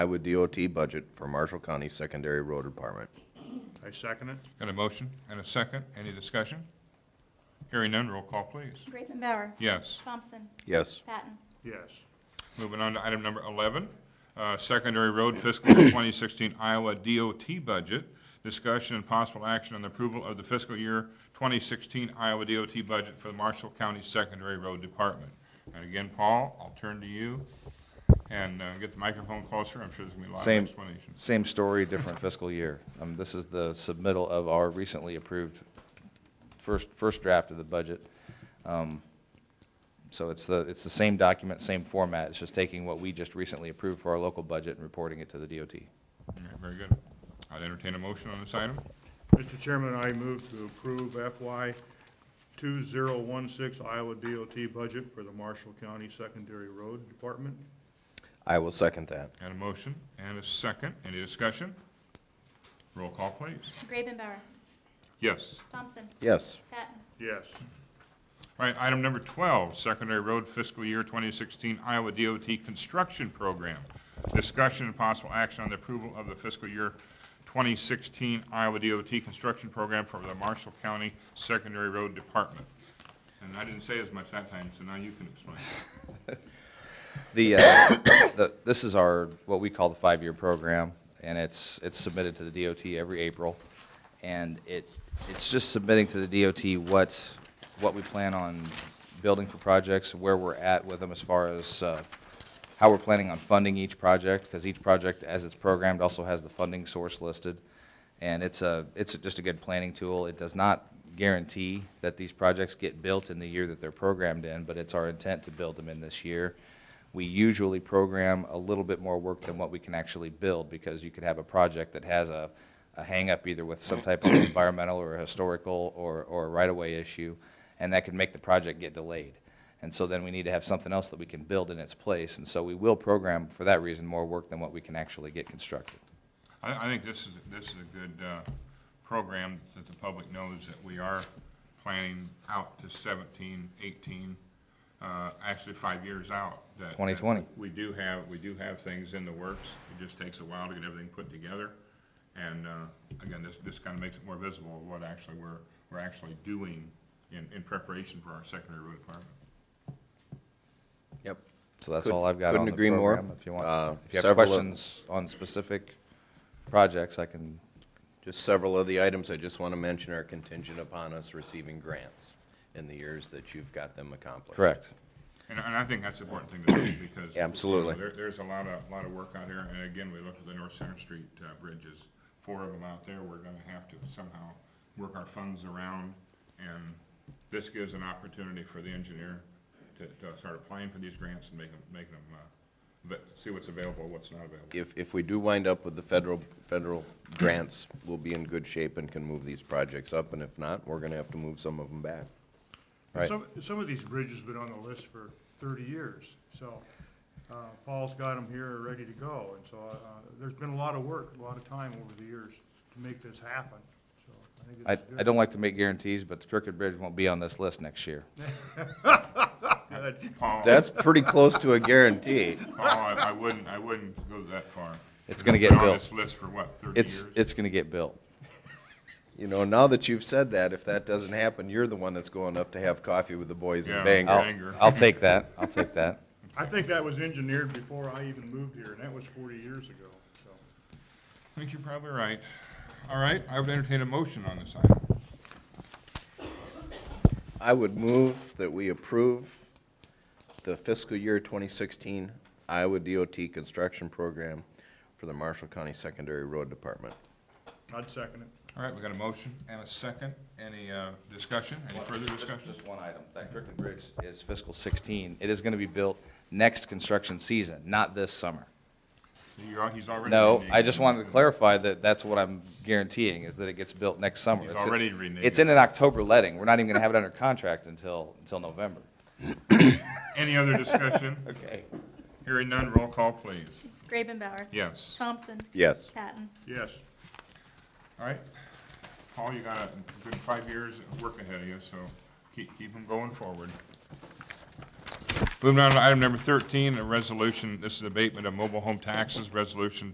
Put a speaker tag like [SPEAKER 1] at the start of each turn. [SPEAKER 1] Iowa DOT budget for Marshall County Secondary Road Department.
[SPEAKER 2] I second it.
[SPEAKER 3] Got a motion and a second. Any discussion? Hearing none, roll call, please.
[SPEAKER 4] Ravenbauer.
[SPEAKER 3] Yes.
[SPEAKER 4] Thompson.
[SPEAKER 1] Yes,
[SPEAKER 4] Patton.
[SPEAKER 2] Yes.
[SPEAKER 3] Moving on to item number 11, uh, Secondary Road Fiscal Year 2016 Iowa DOT Budget. Discussion and possible action on the approval of the fiscal year 2016 Iowa DOT budget for the Marshall County Secondary Road Department. And again, Paul, I'll turn to you and uh, get the microphone closer. I'm sure there's going to be a lot of
[SPEAKER 5] Same.
[SPEAKER 3] explanations.
[SPEAKER 5] Same story, different fiscal year. Um, this is the submittal of our recently approved first, first draft of the budget. Um, So it's the, it's the same document, same format, it's just taking what we just recently approved for our local budget and reporting it to the DOT.
[SPEAKER 3] All right, Very good. I'd entertain a motion on this item.
[SPEAKER 2] Mr. Chairman, I move to approve FY 2016 Iowa DOT budget for the Marshall County Secondary Road Department.
[SPEAKER 1] I will second that.
[SPEAKER 3] Got a motion and a second. Any discussion? Roll call, please.
[SPEAKER 4] Ravenbauer.
[SPEAKER 3] Yes.
[SPEAKER 4] Thompson.
[SPEAKER 1] Yes,
[SPEAKER 4] Patton.
[SPEAKER 2] Yes.
[SPEAKER 3] All right, item number 12, Secondary Road Fiscal Year 2016 Iowa DOT Construction Program. Discussion and possible action on the approval of the fiscal year 2016 Iowa DOT Construction Program for the Marshall County Secondary Road Department. And I didn't say as much that time, so now you can explain.
[SPEAKER 5] The, uh, the, this is our, what we call the five-year program, and it's, it's submitted to the DOT every April. And it, it's just submitting to the DOT what, what we plan on building for projects, where we're at with them as far as, uh, how we're planning on funding each project, because each project, as it's programmed, also has the funding source listed. And it's a, it's just a good planning tool. It does not guarantee that these projects get built in the year that they're programmed in, but it's our intent to build them in this year. We usually program a little bit more work than what we can actually build, because you could have a project that has a, a hangup either with some type of environmental or historical or, or right-of-way issue, and that could make the project get delayed. And so then we need to have something else that we can build in its place, and so we will program, for that reason, more work than what we can actually get constructed.
[SPEAKER 3] I, I think this is, this is a good, uh, program that the public knows that we are planning out to 17, 18, uh, actually five years out. that-
[SPEAKER 5] 2020.
[SPEAKER 3] We do have, we do have things in the works. It just takes a while to get everything put together. And, uh, again, this, this kind of makes it more visible of what actually we're, we're actually doing in, in preparation for our secondary road department.
[SPEAKER 1] yep.
[SPEAKER 5] So that's
[SPEAKER 1] Could-
[SPEAKER 5] all I've got on
[SPEAKER 1] couldn't
[SPEAKER 5] the
[SPEAKER 1] agree more.
[SPEAKER 5] program, if you
[SPEAKER 1] Uh,
[SPEAKER 5] want. If you have
[SPEAKER 1] several of-
[SPEAKER 5] questions on specific projects, I can,
[SPEAKER 1] Just several of the items I just want to mention are contingent upon us receiving grants in the years that you've got them accomplished.
[SPEAKER 5] correct.
[SPEAKER 3] And, and I think that's an important thing to do because.
[SPEAKER 1] Yeah, absolutely.
[SPEAKER 3] you know, There, there's a lot of, lot of work out here, and again, we look at the North Center Street, uh, bridges, four of them out there, we're gonna have to somehow work our funds around, and this gives an opportunity for the engineer to, to start applying for these grants and make them, make them, uh, but, see what's available, what's not available.
[SPEAKER 1] If, if we do wind up with the federal, federal grants, we'll be in good shape and can move these projects up, and if not, we're going to have to move some of them back. Right.
[SPEAKER 6] Some, some of these bridges have been on the list for thirty years, so, uh, Paul's got them here, ready to go, and so, uh, there's been a lot of work, a lot of time over the years to make this happen, so I think
[SPEAKER 5] I,
[SPEAKER 6] this is good.
[SPEAKER 5] I don't like to make guarantees, but the Crooked Bridge won't be on this list next year.
[SPEAKER 3] Paul,
[SPEAKER 1] That's pretty close to a guarantee.
[SPEAKER 3] Paul, Oh, I, I wouldn't, I wouldn't go that far.
[SPEAKER 5] It's gonna
[SPEAKER 3] Been
[SPEAKER 5] get
[SPEAKER 3] On
[SPEAKER 5] built.
[SPEAKER 3] this list for what, thirty years?
[SPEAKER 5] It's, it's gonna get built.
[SPEAKER 1] You know, now that you've said that, if that doesn't happen, you're the one that's going up to have coffee with the boys in
[SPEAKER 3] Yeah.
[SPEAKER 1] Bangor.
[SPEAKER 5] I'll,
[SPEAKER 3] Banger.
[SPEAKER 5] I'll take that, I'll take that.
[SPEAKER 6] I think that was engineered before I even moved here, and that was forty years ago, so.
[SPEAKER 3] I think you're probably right. All right, I would entertain a motion on this item.
[SPEAKER 1] I would move that we approve the fiscal year 2016 Iowa DOT construction program for the Marshall County Secondary Road Department.
[SPEAKER 6] I'd second it.
[SPEAKER 3] All right, we got a motion and a second. Any uh, discussion? Any further
[SPEAKER 5] Just-
[SPEAKER 3] discussion?
[SPEAKER 5] Just one item, that Crooked Bridge is fiscal 16. It is going to be built next construction season, not this summer.
[SPEAKER 3] So you're, he's already.
[SPEAKER 5] No,
[SPEAKER 3] reneging.
[SPEAKER 5] I just wanted to clarify that that's what I'm guaranteeing, is that it gets built next summer.
[SPEAKER 3] He's
[SPEAKER 5] It's-
[SPEAKER 3] already reneging.
[SPEAKER 5] It's in an October letting, we're not even going to have it under contract until, until November.
[SPEAKER 3] Any other discussion?
[SPEAKER 5] Okay.
[SPEAKER 3] Hearing none, roll call, please.
[SPEAKER 4] Ravenbauer.
[SPEAKER 3] Yes.
[SPEAKER 4] Thompson.
[SPEAKER 1] Yes.
[SPEAKER 4] Patton.
[SPEAKER 6] Yes,
[SPEAKER 3] All right. Paul, you got a good five years of work ahead of you, so keep, keep them going forward.
[SPEAKER 6] Moving on to item number 13, a resolution, this is abatement of mobile home taxes, resolution